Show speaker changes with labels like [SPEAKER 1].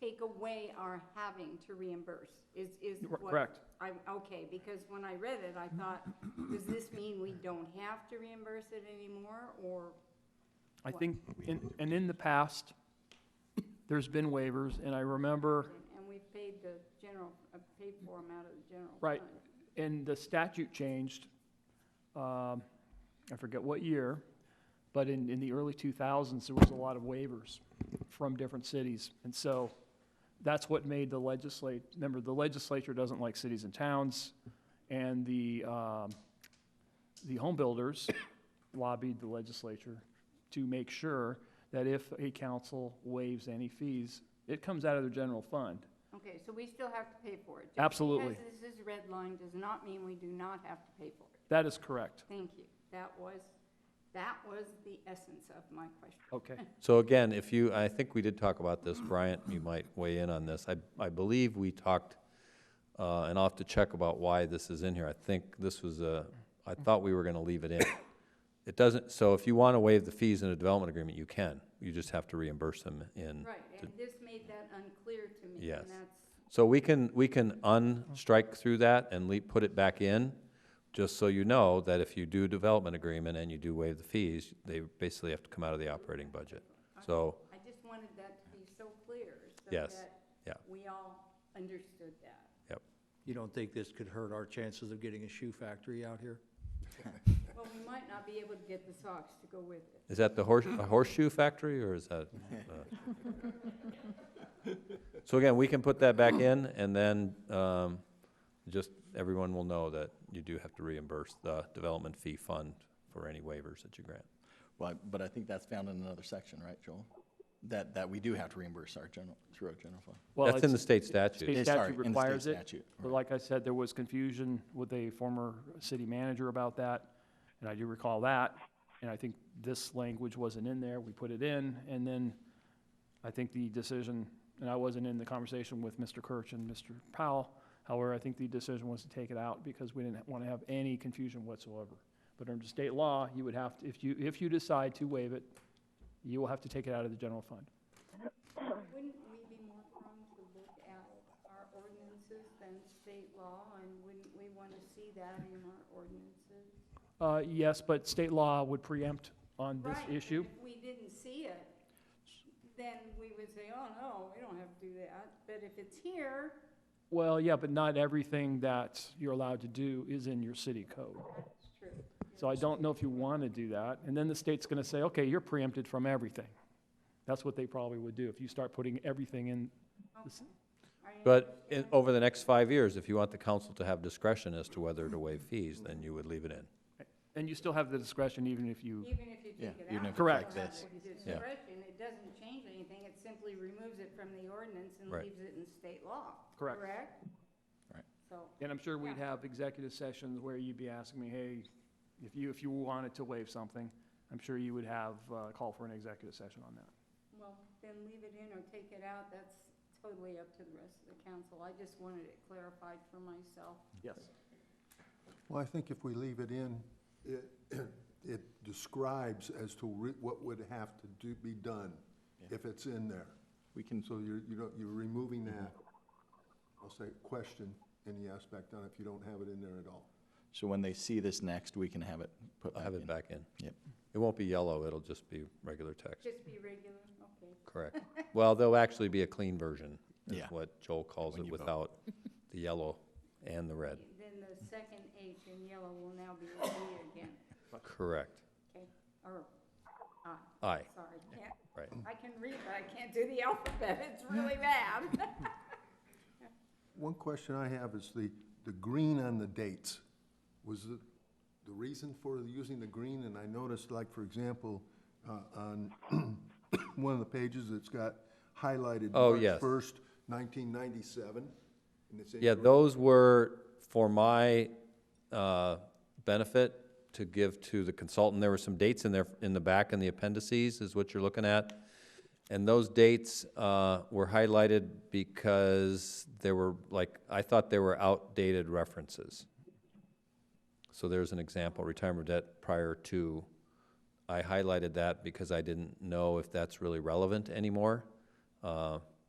[SPEAKER 1] take away our having to reimburse, is, is
[SPEAKER 2] You're
[SPEAKER 1] what?
[SPEAKER 2] correct.
[SPEAKER 1] I, okay, because when I read it, I thought, does this mean we don't have to reimburse it anymore, or?
[SPEAKER 2] I
[SPEAKER 1] What?
[SPEAKER 2] think, in and in the past, there's been waivers, and I remember,
[SPEAKER 1] And we paid the general, uh, paid for them out of the general fund.
[SPEAKER 2] Right. and the statute changed, um, I forget what year, but in, in the early 2000s, there was a lot of waivers from different cities. And so that's what made the legislate, remember, the legislature doesn't like cities and towns, and the, um, the home builders lobbied the legislature to make sure that if a council waives any fees, it comes out of their general fund.
[SPEAKER 1] Okay, so we still have to pay for it. Just
[SPEAKER 2] Absolutely.
[SPEAKER 1] Because this is red line does not mean we do not have to pay for it.
[SPEAKER 2] That is correct.
[SPEAKER 1] Thank you. That was, that was the essence of my question.
[SPEAKER 2] Okay.
[SPEAKER 3] So again, if you, I think we did talk about this, Bryant, you might weigh in on this. I, I believe we talked, uh, and I'll have to check about why this is in here. I think this was a, I thought we were gonna leave it in. It doesn't, so if you wanna waive the fees in a development agreement, you can. You just have to reimburse them in.
[SPEAKER 1] Right, and this made that unclear to me,
[SPEAKER 3] Mm. Yes.
[SPEAKER 1] and that's,
[SPEAKER 3] So we can, we can unstrike through that and le, put it back in, just so you know that if you do development agreement and you do waive the fees, they basically have to come out of the operating budget. So,
[SPEAKER 1] I just wanted that to be so clear, so
[SPEAKER 3] Yes,
[SPEAKER 1] that
[SPEAKER 3] yeah.
[SPEAKER 1] we all understood that.
[SPEAKER 3] yep.
[SPEAKER 4] You don't think this could hurt our chances of getting a shoe factory out here?
[SPEAKER 1] Well, we might not be able to get the socks to go with it.
[SPEAKER 3] Is that the horse, a horseshoe factory, or is that? uh, So again, we can put that back in, and then, um, just, everyone will know that you do have to reimburse the development fee fund for any waivers that you grant.
[SPEAKER 5] Well, I- but I think that's found in another section, right, Joel? That, that we do have to reimburse our general, through our general fund.
[SPEAKER 2] Well,
[SPEAKER 3] That's in the
[SPEAKER 2] it's-
[SPEAKER 3] state statute.
[SPEAKER 2] State
[SPEAKER 5] Yeah, sorry,
[SPEAKER 2] statute
[SPEAKER 5] in the state
[SPEAKER 2] requires it.
[SPEAKER 5] statute,
[SPEAKER 2] But like I said, there was confusion with a former city manager about that, and I do recall that. And I think this language wasn't in there, we put it in, and then I think the decision, and I wasn't in the conversation with Mr. Kirch and Mr. Powell. However, I think the decision was to take it out because we didn't want to have any confusion whatsoever. But under state law, you would have, to if you, if you decide to waive it, you will have to take it out of the general fund.
[SPEAKER 1] Wouldn't we be more prone to look at our ordinances than state law, and wouldn't we want to see that in our ordinances?
[SPEAKER 2] Uh, yes, but state law would preempt on this
[SPEAKER 1] Right, and
[SPEAKER 2] issue.
[SPEAKER 1] if we didn't see it, then we would say, oh, no, we don't have to do that. But if it's here,
[SPEAKER 2] Well, yeah, but not everything that you're allowed to do is in your city code.
[SPEAKER 1] it's true.
[SPEAKER 2] So I don't know if you want to do that. And then the state's going to say, okay, you're preempted from everything. That's what they probably would do if you start putting everything in. the s-
[SPEAKER 1] I-
[SPEAKER 3] But in, over the next five years, if you want the council to have discretion as to whether to waive fees, then you would leave it in.
[SPEAKER 2] And you still have the discretion even if you,
[SPEAKER 1] Even if you
[SPEAKER 5] Yeah,
[SPEAKER 1] take it out.
[SPEAKER 5] even if it's
[SPEAKER 2] Correct.
[SPEAKER 5] like this.
[SPEAKER 1] it's
[SPEAKER 3] Yeah.
[SPEAKER 1] Discretion, it doesn't change anything, it simply removes it from the ordinance and
[SPEAKER 3] Right.
[SPEAKER 1] leaves it in state law.
[SPEAKER 2] Correct.
[SPEAKER 1] Correct?
[SPEAKER 5] Right.
[SPEAKER 1] So,
[SPEAKER 2] and I'm sure we'd have executive sessions where you'd be asking me, hey, if you, if you wanted to waive something, I'm sure you would have a call for an executive session on that.
[SPEAKER 1] well, then leave it in or take it out, that's totally up to the rest of the council. I just wanted it clarified for myself.
[SPEAKER 2] Yes.
[SPEAKER 6] Well, I think if we leave it in, it, it describes as to re- what would have to do, be done if it's in there.
[SPEAKER 5] We can,
[SPEAKER 6] So you're, you don't, you're removing that, I'll say, question, any aspect on it if you don't have it in there at all.
[SPEAKER 5] so when they see this next, we can have it put
[SPEAKER 3] I'll
[SPEAKER 5] back
[SPEAKER 3] Have it
[SPEAKER 5] in.
[SPEAKER 3] back in.
[SPEAKER 5] Yep.
[SPEAKER 3] It won't be yellow, it'll just be regular text.
[SPEAKER 1] Just be regular, okay.
[SPEAKER 3] Correct. Well, there'll actually be a clean version, is
[SPEAKER 5] Yeah.
[SPEAKER 3] what Joel calls
[SPEAKER 5] When
[SPEAKER 3] it,
[SPEAKER 5] you vote.
[SPEAKER 3] without the yellow and the red.
[SPEAKER 1] Then the second H in yellow will now be a D again,
[SPEAKER 3] Correct.
[SPEAKER 1] okay? Or, ah,
[SPEAKER 3] Aye,
[SPEAKER 1] sorry, can't,
[SPEAKER 3] right.
[SPEAKER 1] I can read, but I can't do the alphabet, it's really bad.
[SPEAKER 6] One question I have is the, the green on the dates. Was the, the reason for using the green, and I noticed, like, for example, uh, on one of the pages that's got highlighted
[SPEAKER 3] Oh,
[SPEAKER 6] March
[SPEAKER 3] yes.
[SPEAKER 6] first, nineteen ninety-seven.
[SPEAKER 3] Yeah, those were for my uh, benefit to give to the consultant. There were some dates in there, in the back in the appendices is what you're looking at. And those dates uh, were highlighted because there were, like, I thought they were outdated references. So there's an example, retirement debt prior to. I highlighted that because I didn't know if that's really relevant anymore. Uh,